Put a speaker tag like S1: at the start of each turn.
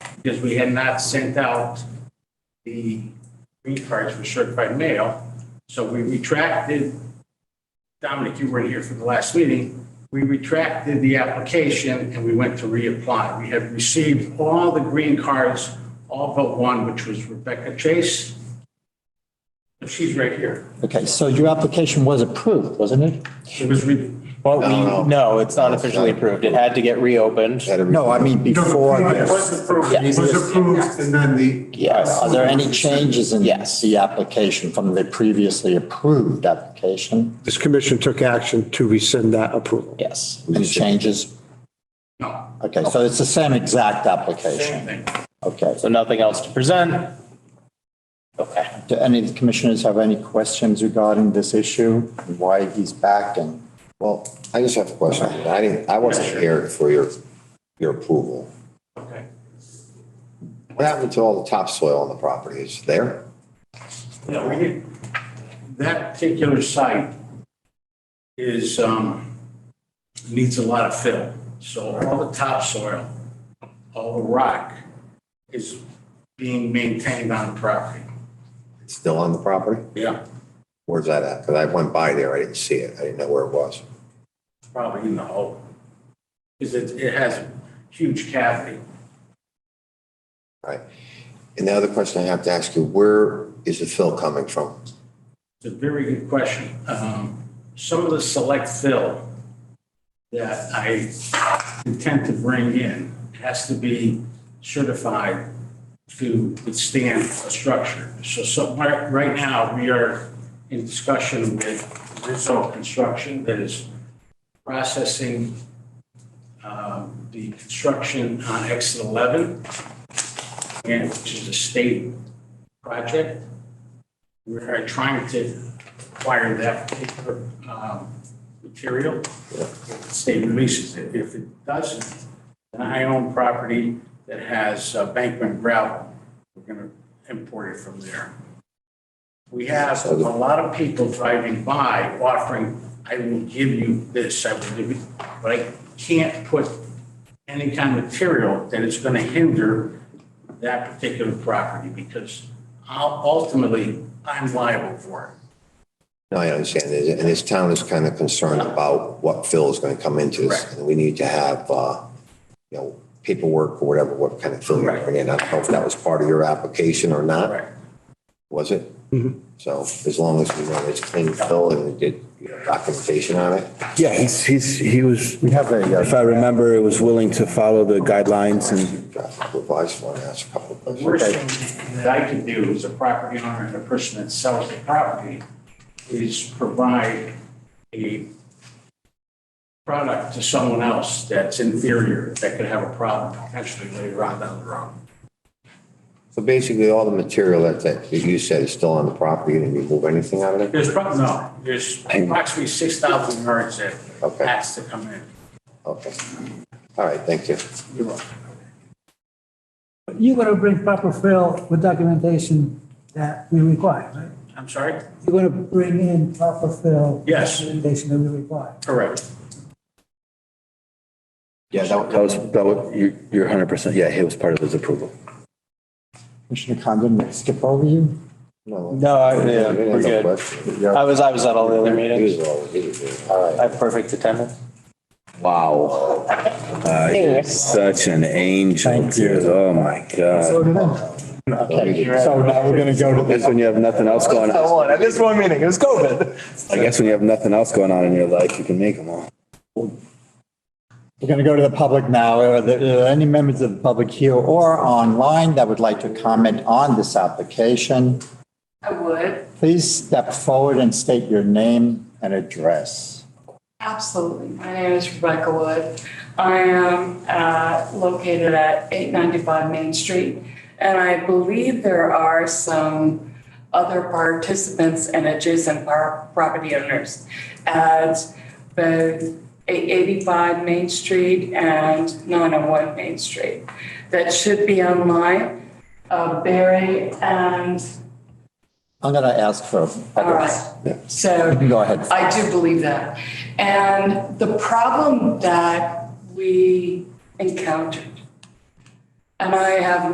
S1: because we had not sent out the green cards for certified mail. So we retracted, Dominic, you weren't here for the last meeting. We retracted the application and we went to reapply. We have received all the green cards, all but one, which was Rebecca Chase. She's right here.
S2: Okay, so your application was approved, wasn't it?
S1: It was, re-
S3: Well, we, no, it's not officially approved. It had to get reopened.
S2: No, I mean before
S4: It
S2: this.
S4: was approved, it was approved, and then the.
S2: Yes, are there any changes in
S3: Yes.
S2: the application from the previously approved application?
S5: This commission took action to rescind that approval.
S3: Yes.
S2: Any changes?
S1: no,
S2: Okay, so it's the same exact
S1: same
S2: application.
S1: thing.
S2: Okay.
S3: So nothing else to present. Okay.
S2: Do any of the commissioners have any questions regarding this issue? and Why he's back and,
S6: Well, I just have a question. I didn't, I wasn't here for your, your approval.
S1: Okay.
S6: What happened to all the topsoil on the property? Is it there?
S1: Yeah, we did. That particular site is, um, needs a lot of fill. So all the topsoil, all the rock is being maintained on the property.
S6: It's still on the property?
S1: Yeah,
S6: Where's that at? Because I went by there, I didn't see it. I didn't know where it was.
S1: probably in the hole. Because it, it has a huge cavity.
S6: All Right. And the other question I have to ask you, where is the fill coming from?
S1: It's a very good question. Um, Some of the select fill that I intend to bring in has to be certified to withstand a structure. So, so right right now, we are in discussion with Rizzo Construction that is processing um, the construction on exit 11, and which is a state project. We are trying to acquire that particular um, material. If the state releases it. If it doesn't, then I own property that has uh, Bankman gravel. We're going to import it from there. We have a lot of people driving by offering, I will give you this, I will give you, but I can't put any kind of material that is going to hinder that particular property because I'll- ultimately, I'm liable for
S6: No, I understand. And this town is kind of concerned about what fill is going to come into this.
S1: Correct.
S6: And we need to have, uh, you know, paperwork or whatever, what kind of fill you're
S1: Correct.
S6: bringing in. I don't know if that was part of your application or
S1: it.
S6: not.
S1: Correct.
S6: was it? So as long as we know it's clean fill and we did you know, documentation on it,
S7: Yeah, he's, he's, he was,
S2: we have a,
S7: if I
S2: uh,
S7: remember, it was willing to follow the guidelines and
S6: traffic revised, want to ask a couple of
S1: The
S6: questions.
S1: worst thing that I can do as a property owner and a person that sells the property is provide a product to someone else that's inferior, that could have a problem potentially later on down the road.
S6: So basically, all the material that, that you said is still on the property, you didn't remove anything out of it?
S1: There's probably, no, there's approximately 6,000 yards that
S6: Okay.
S1: has to come in.
S6: Okay. All right, thank you.
S1: You're welcome.
S8: You're gonna bring proper fill with documentation that we require, right?
S1: I'm sorry?
S8: You're gonna bring in proper fill.
S1: Yes.
S8: Documentation that we require.
S1: Correct.
S6: Yeah, that
S7: that was, that was, you- you're 100%, yeah, it was part of his approval.
S2: Commissioner Condon, did I skip over you?
S6: No,
S3: No, I,
S6: I
S3: yeah,
S6: didn't have
S3: we're
S6: no
S3: good.
S6: question.
S3: I was, I was at all the other meetings.
S6: He was all- he was all-
S3: I have perfect attendance.
S7: Wow. Such an angel, dude. Oh, my God.
S2: So now we're going to go to
S7: That's when you have nothing else going on.
S3: one, at this one meeting, it was COVID.
S7: I guess when you have nothing else going on in your life, you can make them all.
S2: We're going to go to the public now. Are there any members of the public here or online that would like to comment on this application?
S9: I would,
S2: Please step forward and state your name and address.
S9: absolutely. My name is Rebecca Wood. I am uh, located at 895 Main Street, and I believe there are some other participants and adjacent par- property owners at both 885 Main Street and 901 Main Street that should be online, Uh, Barry and,
S2: I'm going to ask for
S9: all right.
S2: others. Yeah.
S9: So
S2: You can go ahead.
S9: I do believe that. And the problem that we encountered, and I have